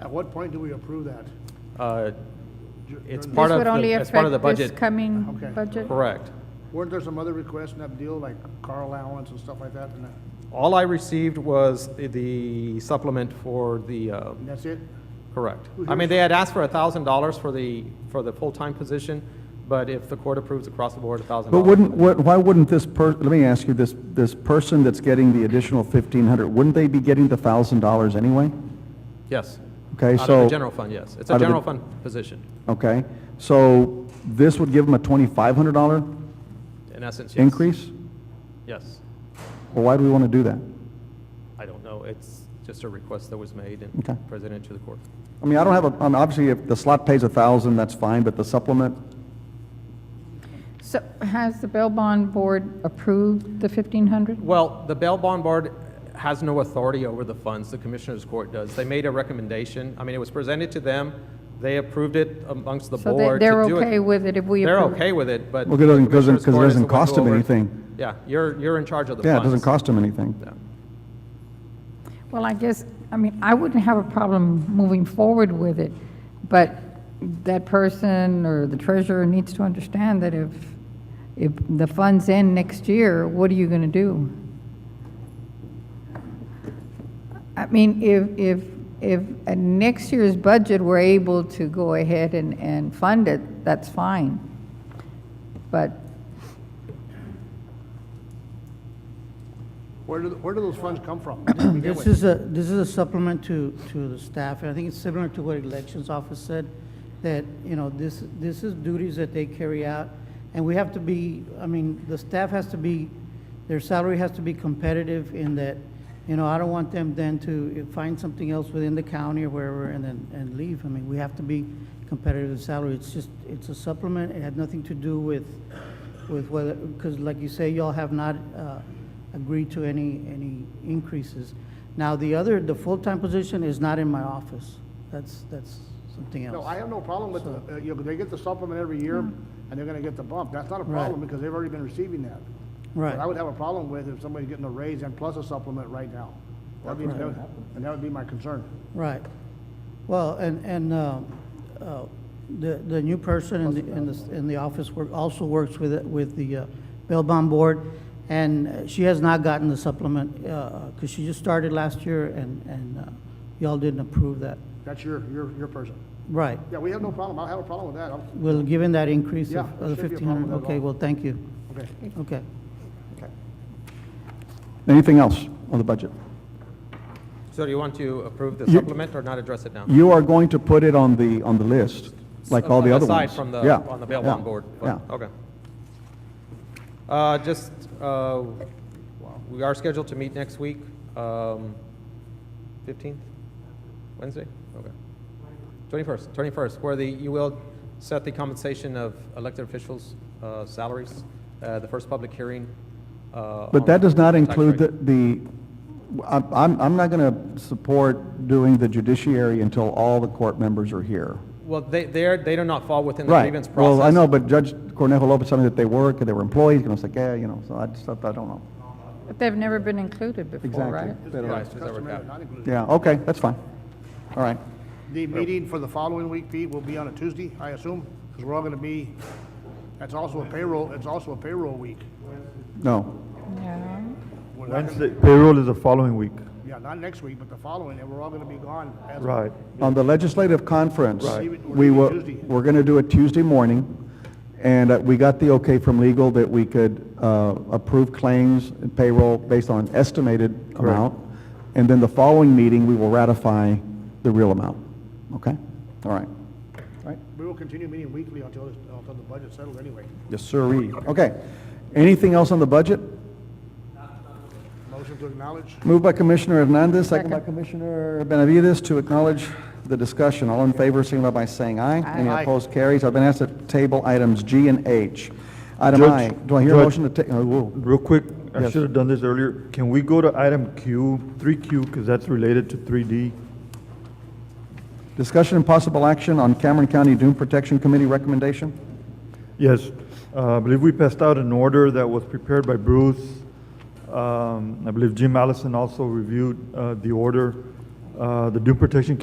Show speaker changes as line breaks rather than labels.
At what point do we approve that?
Uh,
Dur-
It's
during-
part
This
of
would
the-
only
as part of the
affect this
budget.
coming
Okay.
budget?
Correct.
Weren't there some other requests in that deal, like car allowance and stuff like that? And that-
All I received was the- the supplement for the, uh,
and that's it?
correct.
Who
I mean,
hears
they had asked for $1,000 for the, for the full-time position, but if the court approves across the board, $1,000.
But wouldn't, what- why wouldn't this per, let me ask you, this, this person that's getting the additional fifteen hundred, wouldn't they be getting the thousand dollars anyway?
Yes. Out
Okay,
of the
so-
general fund, yes. It's a
Out of the-
general fund position,
Okay, so this would give them a twenty-five hundred dollar
in essence, yes.
increase?
Yes.
Well, why do we want to do that?
I don't know. It's just a request that was made
Okay.
and presented to the court.
I mean, I don't have a, I mean, obviously, if the slot pays a thousand, that's fine, but the supplement,
So has the bail bond board approved the 1,500?
Well, the bail bond board has no authority over the funds, the commissioners' court does. They made a recommendation, I mean, it was presented to them, they approved it amongst the
So they-
board to
they're
do it.
okay with it if we
They're
approve?
okay with it, but.
Well, it doesn't-
the commissioners'
'cause it
court is the
doesn't
one who
cost them
over-
anything.
Yeah, you're, you're in charge of the funds.
yeah, it doesn't cost them anything.
Yeah.
Well, I guess, I mean, I wouldn't have a problem moving forward with it, but that person or the treasurer needs to understand that if, if the funds end next year, what are you going to do? I mean, if, if, if at next year's budget, we're able to go ahead and, and fund it, that's fine. But
Where do, th- where do those funds come from? to begin
This
with?
is a, this is a supplement to, to the staff, and I think it's similar to what elections office said, that, you know, this, this is duties that they carry out, and we have to be, I mean, the staff has to be, their salary has to be competitive in that, you know, I don't want them then to find something else within the county or wherever and then, and leave. I mean, we have to be competitive in salary, it's just, it's a supplement, it had nothing to do with, with whether, because like you say, y'all have not uh, agreed to any, any increases. Now, the other, the full-time position is not in my office. That's, that's something else.
No, I have no problem with, the- uh, you know, they get the supplement every year, and they're gonna get the bump. That's not a
Hmm. Right.
problem, because they've already been receiving that. What I
Right,
would have a problem with if somebody's getting a raise and plus a supplement right now. That'd be, that would- and that would be my concern.
right. Well, and, and uh, uh, the, the new person in the, in the, in the office work, also works with, it- with the uh, bail bond board, and uh, she has not gotten the supplement, because she just started last year, and, and uh, y'all didn't approve that.
That's your, your, your person.
Right.
Yeah, we have no problem. I don't have a problem with that. I'm-
Well, given that increase
Yeah,
of
there
of the
should be a problem
1,500,
with that
okay,
law.
well, thank you.
Okay.
Okay.
Anything else on the budget?
So do you want to approve the
You-
supplement or not address it now?
You are going to put it on the, on the list, like all the other ones?
Aside from the,
Yeah,
on the bail
yeah,
bond board? but-
Yeah.
Okay. Uh, Just, uh, we are scheduled to meet next week, um, 15th, Wednesday? Okay. 21st, 21st, where the, you will set the compensation of elected officials' uh, salaries, uh, the first public hearing. uh,
But
on
that does not
tax
include the,
rate.
the, I'm, I'm I'm not going to support doing the judiciary until all the court members are here.
Well, they, they're, they do not fall within the
Right.
grievance process.
Well, I know, but Judge Cornejo Lopez, told me that they work, and they were employees, and I was like, yeah, you know, so I just, I don't know.
but they've never been included before,
Exactly.
right?
They don't-
Right, it's over
Customary,
cap.
not included.
Yeah, okay, that's fine. All right.
The meeting for the following week, Pete, will be on a Tuesday, I assume, because we're all gonna be, that's also a payroll, it's also a payroll week.
No.
Yeah.
We're not gonna-
Wednesday, payroll is the following week.
Yeah, not next week, but the following, and we're all gonna be gone. as-
Right.
On the legislative conference,
Right.
we
We're
were,
leaving Tuesday.
we're going to do it Tuesday morning, and uh, we got the okay from legal that we could uh, approve claims and payroll based on an estimated amount, and then the following meeting, we will ratify the real amount. Okay? All right. All right?
We will continue meeting weekly until, this- until the budget's settled anyway.
Yes, sirree. Okay. Anything else on the budget?
Motion to acknowledge?
Moved by Commissioner Hernandez, second by Commissioner Benavides to acknowledge the discussion. All in favor, signify by saying aye. Any
Aye.
opposed, carries. I've been asked to table items G and H. Item
Judge-
I, do I hear a
Judge-
motion to ta, oh, whoa.
Real quick, I
Yes.
should have done this earlier. Can we go to item Q, three Q, because that's related to three D?
Discussion and possible action on Cameron County Doom Protection Committee recommendation?
Yes, uh, I believe we passed out an order that was prepared by Bruce. Um, I believe Jim Allison also reviewed, uh, the order. Uh, the due protection